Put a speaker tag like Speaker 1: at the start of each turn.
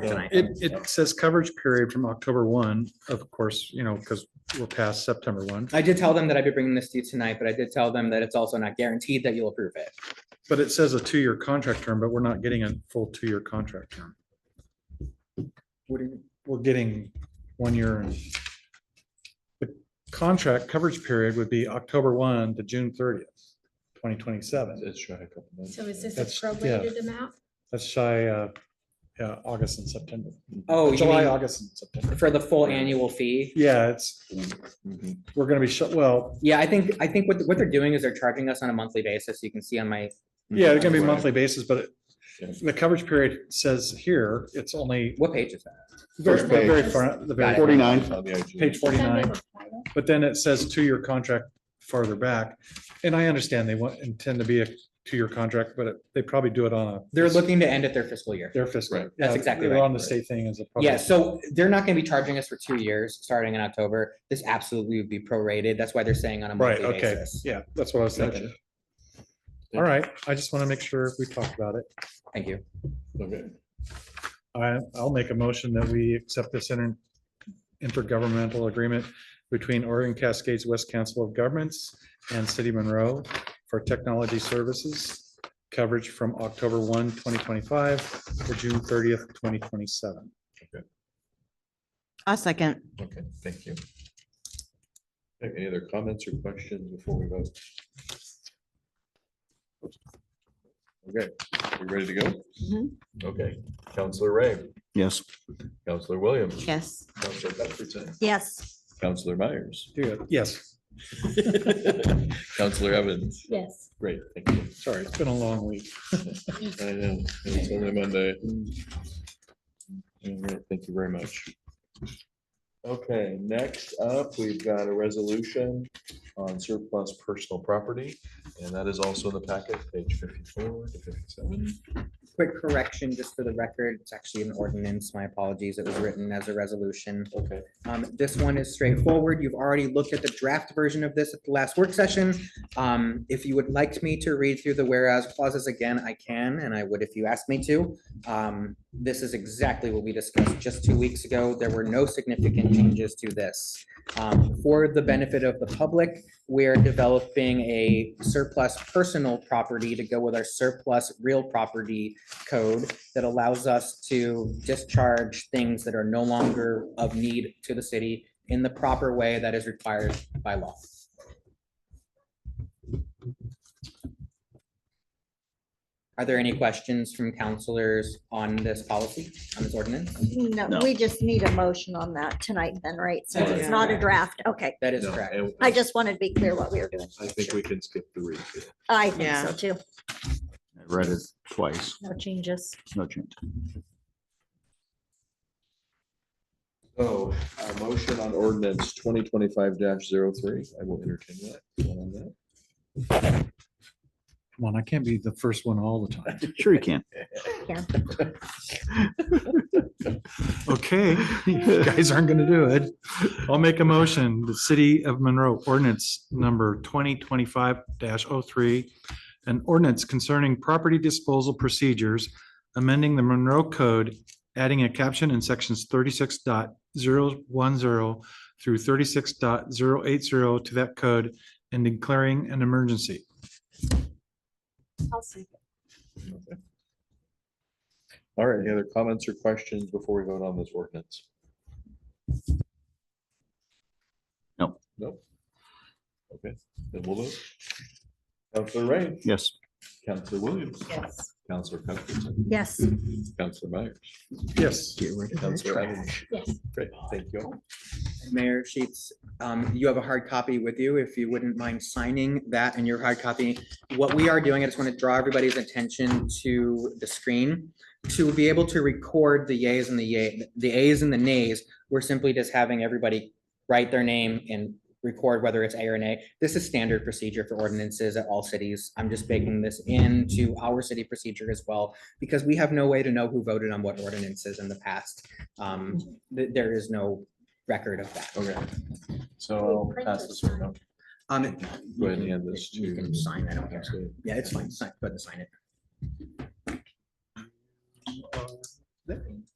Speaker 1: tonight.
Speaker 2: It, it says coverage period from October one, of course, you know, because we're past September one,
Speaker 3: I did tell them that I'd be bringing this to you tonight, but I did tell them that it's also not guaranteed that you'll approve it.
Speaker 2: but it says a two-year contract term, but we're not getting a full two-year contract term. What do you, we're getting one year and the contract coverage period would be October one to June thirtieth, twenty twenty-seven.
Speaker 4: It's right, a couple months.
Speaker 5: So is this
Speaker 2: That's-
Speaker 5: a prorated amount?
Speaker 2: That's shy, uh, yeah, August and September,
Speaker 3: Oh, you
Speaker 2: July,
Speaker 3: mean
Speaker 2: August and September.
Speaker 3: for the full annual fee?
Speaker 2: Yeah, it's,
Speaker 4: Mhm.
Speaker 2: we're gonna be shut, well,
Speaker 3: Yeah, I think, I think what, what they're doing is they're charging us on a monthly basis. You can see on my,
Speaker 2: yeah, it's gonna be
Speaker 4: Mhm. Right.
Speaker 2: monthly basis, but it-
Speaker 4: Yeah.
Speaker 2: the coverage period says here, it's only
Speaker 3: what page is that?
Speaker 2: very,
Speaker 4: First
Speaker 2: very
Speaker 5: page.
Speaker 2: front, the very,
Speaker 3: Got it.
Speaker 4: It's
Speaker 6: Forty-nine,
Speaker 4: on the IG.
Speaker 2: page
Speaker 5: Does that
Speaker 2: forty-nine.
Speaker 5: have a title?
Speaker 2: But then it says two-year contract farther back. And I understand they want, intend to be a two-year contract, but it- they probably do it on a.
Speaker 3: They're looking to end at their fiscal year.
Speaker 2: Their fiscal.
Speaker 4: Right.
Speaker 2: yeah,
Speaker 3: That's exactly
Speaker 2: they're
Speaker 3: right.
Speaker 2: On the state thing as a. public-
Speaker 3: Yeah, so they're not gonna be charging us for two years, starting in October. This absolutely would be prorated. That's why they're saying on a
Speaker 2: Right,
Speaker 3: monthly
Speaker 2: okay.
Speaker 3: basis.
Speaker 2: Yeah, that's what I was thinking. All right, I just want to make sure we talked about it.
Speaker 3: Thank you.
Speaker 4: Okay.
Speaker 2: I, I'll make a motion that we accept this inter- intergovernmental agreement between Oregon Cascades West Council of Governments and City Monroe for technology services coverage from October 1, 2025 to June thirtieth, twenty twenty-seven.
Speaker 7: I'll second.
Speaker 4: Okay, thank you. Okay, Any other comments or questions before we vote? Okay, we ready to go?
Speaker 7: Mhm.
Speaker 5: Mm-hmm.
Speaker 4: Okay, Counselor Ray,
Speaker 6: yes.
Speaker 4: Counselor Williams,
Speaker 7: Yes.
Speaker 4: Counselor Cuthbertson,
Speaker 7: Yes.
Speaker 4: Counselor Myers,
Speaker 2: Yes,
Speaker 4: Counselor Evans.
Speaker 5: Yes.
Speaker 4: Great, thank you.
Speaker 2: sorry, it's been a long week.
Speaker 4: I know, it's only Monday. All right, Thank you very much. Okay, next up, we've got a resolution on surplus personal property, and that is also in the packet, page fifty-four to fifty-seven.
Speaker 3: Quick correction, just for the record, it's actually an ordinance. My apologies. It was written as a resolution.
Speaker 4: Okay.
Speaker 3: Um, this one is straightforward. You've already looked at the draft version of this at the last work session. Um, if you would like me to read through the whereas clauses again, I can, and I would if you asked me to. Um, this is exactly what we discussed just two weeks ago. There were no significant changes to this. Um, for the benefit of the public, we're developing a surplus personal property to go with our surplus real property code that allows us to discharge things that are no longer of need to the city in the proper way that is required by law. Are there any questions from counselors on this policy, on this ordinance?
Speaker 6: No.
Speaker 8: No, we just need a motion on that tonight then, right? Since it's not a draft. Okay.
Speaker 3: That is
Speaker 4: No,
Speaker 3: correct.
Speaker 4: and
Speaker 8: I just wanted to be clear what we were doing.
Speaker 4: I think we can skip the read. here.
Speaker 8: I think
Speaker 7: Yeah.
Speaker 8: so too.
Speaker 6: I read it twice,
Speaker 8: No changes.
Speaker 6: no change.
Speaker 4: So, Oh, a motion on ordinance twenty twenty-five 3 I will entertain that. One on that.
Speaker 2: Come on, I can't be the first one all the time.
Speaker 6: Sure you can.
Speaker 2: Okay, you guys aren't gonna do it. I'll make a motion, the city of Monroe ordinance number twenty twenty-five 3 An ordinance concerning property disposal procedures, amending the Monroe Code, adding a caption in sections 36.010 through 36.080 to that code and declaring an emergency.
Speaker 8: I'll second.
Speaker 4: Okay. All right, any other comments or questions before we vote on this ordinance?
Speaker 6: No.
Speaker 4: Nope. Okay, then we'll vote. Counselor Ray,
Speaker 6: Yes.
Speaker 4: Counselor Williams,
Speaker 7: Yes.
Speaker 4: Counselor Cuthbertson,
Speaker 8: Yes.
Speaker 4: Counselor Myers,
Speaker 2: Yes.
Speaker 4: Counselor Evans.
Speaker 5: Yes.
Speaker 4: Great, thank you. all.
Speaker 3: Mayor Sheets, um, you have a hard copy with you, if you wouldn't mind signing that in your hard copy. What we are doing, I just want to draw everybody's attention to the screen. To be able to record the yays and the yay, the ayes and the nays, we're simply just having everybody write their name and record whether it's A or nay. This is standard procedure for ordinances at all cities. I'm just baking this into our city procedure as well, because we have no way to know who voted on what ordinances in the past. Um, th- there is no record of that.
Speaker 4: Okay, so
Speaker 5: We
Speaker 4: I'll
Speaker 5: print
Speaker 4: pass
Speaker 5: this
Speaker 4: this one up.
Speaker 3: Um, it-
Speaker 4: Go ahead and hand this to.
Speaker 3: You can sign, I don't care.
Speaker 4: Counselor-
Speaker 3: Yeah, it's fine. Sign- Go ahead and sign it.